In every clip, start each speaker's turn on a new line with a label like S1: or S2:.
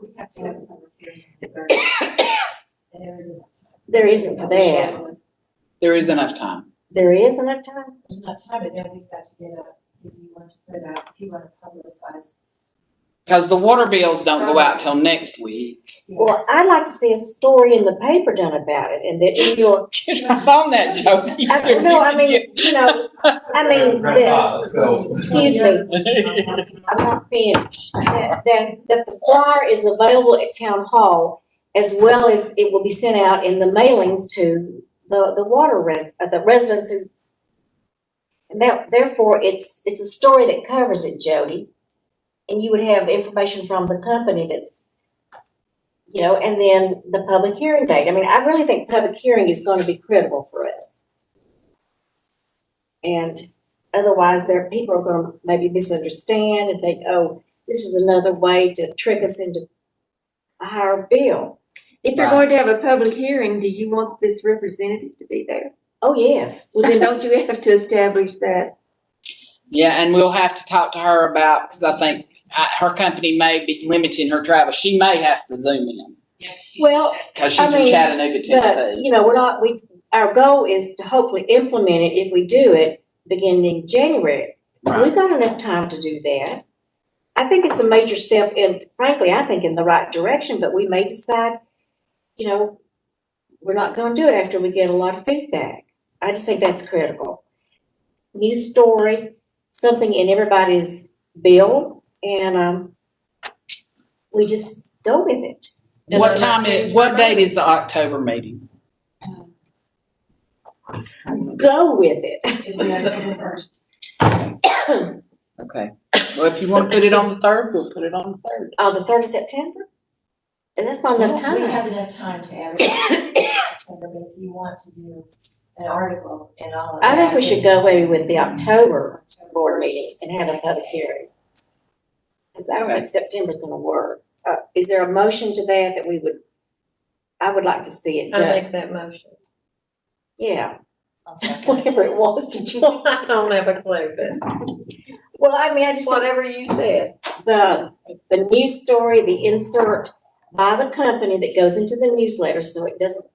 S1: We have to have a public hearing on the third. And there isn't.
S2: There isn't for that.
S3: There is enough time.
S2: There is enough time?
S1: There's not time, but then we've got to get up, if you want to put out, if you want to publicize.
S3: Because the water bills don't go out till next week.
S1: you know,
S2: Well, I'd like to see a story in the paper done about it and that in your,
S3: Get right on that joke.
S2: I- no, I mean, you know, I mean,
S4: Press
S2: that-
S4: off, let's go.
S2: excuse me, I'm not finished. That, that, that the flyer is available at town hall as well as it will be sent out in the mailings to the, the water res, uh, the residents who. And that, therefore, it's, it's a story that covers it, Jody. And you would have information from the company that's, you know, and then the public hearing date. I mean, I really think public hearing is gonna be critical for us. And otherwise, there, people are gonna maybe misunderstand and think, oh, this is another way to trick us into a higher bill.
S5: If you're
S3: Right.
S5: going to have a public hearing, do you want this representative to be there?
S2: Oh, yes.
S5: Well, then don't you have to establish that?
S3: Yeah, and we'll have to talk to her about, because I think uh, her company may be limiting her travel. She may have to zoom in
S2: Well,
S3: because
S2: I
S3: she's from
S2: mean,
S3: Chattanooga,
S2: But,
S3: Tennessee.
S2: you know, we're not, we, our goal is to hopefully implement it if we do it beginning January. We've got enough time to do that. I think it's a major step in, frankly, I think in the right direction, but we may decide, you know, we're not gonna do it after we get a lot of feedback. I just think that's critical. News story, something in everybody's bill, and, um, we just go with it.
S1: Does
S3: What
S1: it-
S3: time is, what date is the October meeting?
S1: Um,
S2: Go with it.
S1: It'll be October first.
S3: Okay. Well, if you want to put it on the third, we'll put it on the third.
S2: Oh, the third of September? And that's not enough
S1: We
S2: time.
S1: have enough time to add it in September, but if you want to do an article and all of that.
S2: I think we should go away with the October
S1: October
S2: board
S1: 1st
S2: meeting
S1: is
S2: and have a
S1: next
S2: public
S1: day.
S2: hearing. Because I don't
S3: Okay.
S2: think September's gonna work. Uh, is there a motion to that that we would, I would like to see it done?
S5: that motion.
S2: Yeah,
S1: I'll second it.
S2: whatever it was to join.
S5: I don't have a clue, but
S2: Well, I mean, I just,
S5: whatever you said.
S2: the, the news story, the insert by the company that goes into the newsletter, so it doesn't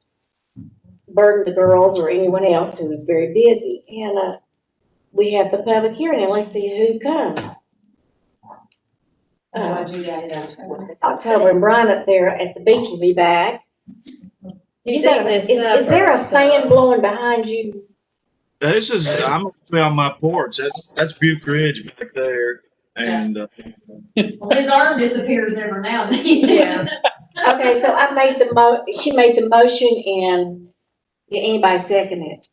S2: burden the girls or anyone else who is very busy. And, uh, we have the public hearing and let's see who comes.
S1: You
S2: Uh,
S1: wanna do that in October?
S2: October and Brian up there at the beach will be back. You got, a- is, is there a fan blowing behind you?
S6: This is I'm actually on my porch. That's that's Butte Ridge back there, and uh,
S7: His arm disappears every now and then.
S5: Yeah.
S2: Okay, so I made the mo, she made the motion and did anybody second it?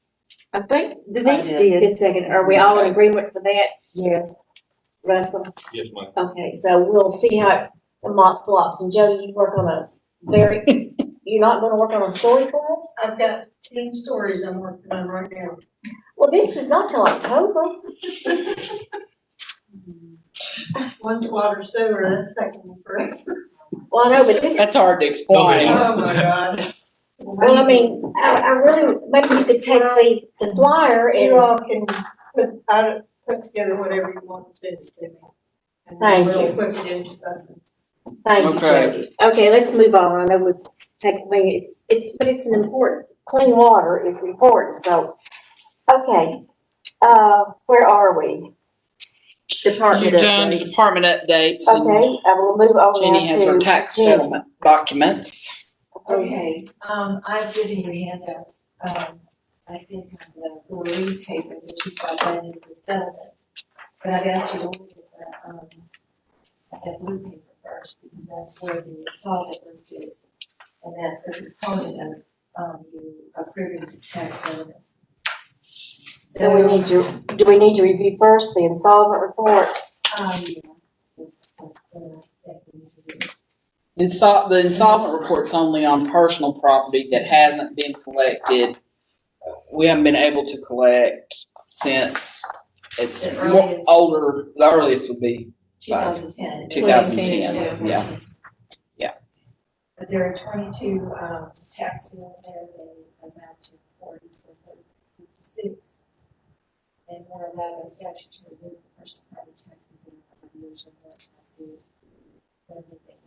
S5: I think Denise
S1: I
S5: did,
S2: Did second, are we all in agreement for that?
S5: yes.
S2: Russell,
S4: Yes, ma'am.
S2: okay, so we'll see how the mock flops, and Jody, you work on a very, you're not gonna work on a story for us?
S7: I've got ten stories I'm working on right now.
S2: Well, this is not till October,
S7: One's water sewer, that's taking me forever.
S2: well, I know, but this,
S3: That's hard to explain.
S7: Oh, my God.
S2: well, I mean, I, I really, maybe you could take the, the flyer
S7: You
S2: and,
S7: all can put, I, put together whatever you want to send it to me. And then
S2: Thank
S7: we'll
S2: you.
S7: Put it into something.
S2: thank you,
S3: Okay.
S2: Jody. Okay, let's move on, I know we've taken, I mean, it's, it's, but it's an important, clean water is important, so, okay. Uh, where are we?
S5: Department
S3: You've done the
S5: updates.
S3: department updates and
S2: Okay, I will move on now to.
S3: Jenny has her tax
S2: Jenny.
S3: settlement documents.
S1: Okay, um, I've given you handouts, um, I think on the blue paper that you got, that is the settlement. But I've asked you to look at the, um, at the blue paper first, because that's where the solid list is. And that's a component of, um, you approving this tax settlement.
S2: So we need to, do we need to review first the insolvent report?
S1: Um, yeah, that's the, that we need to do.
S3: Insol- the insolvent report's only on personal property that hasn't been collected. We haven't been able to collect since it's
S1: The
S3: more
S1: earliest.
S3: older, the earliest would be,
S1: 2010.
S3: 2010, yeah. Yeah.
S1: But there are 22 um, tax bills there that amount to 40, or 56. And one of them is statute to remove the person property taxes in five years or more past due. Everything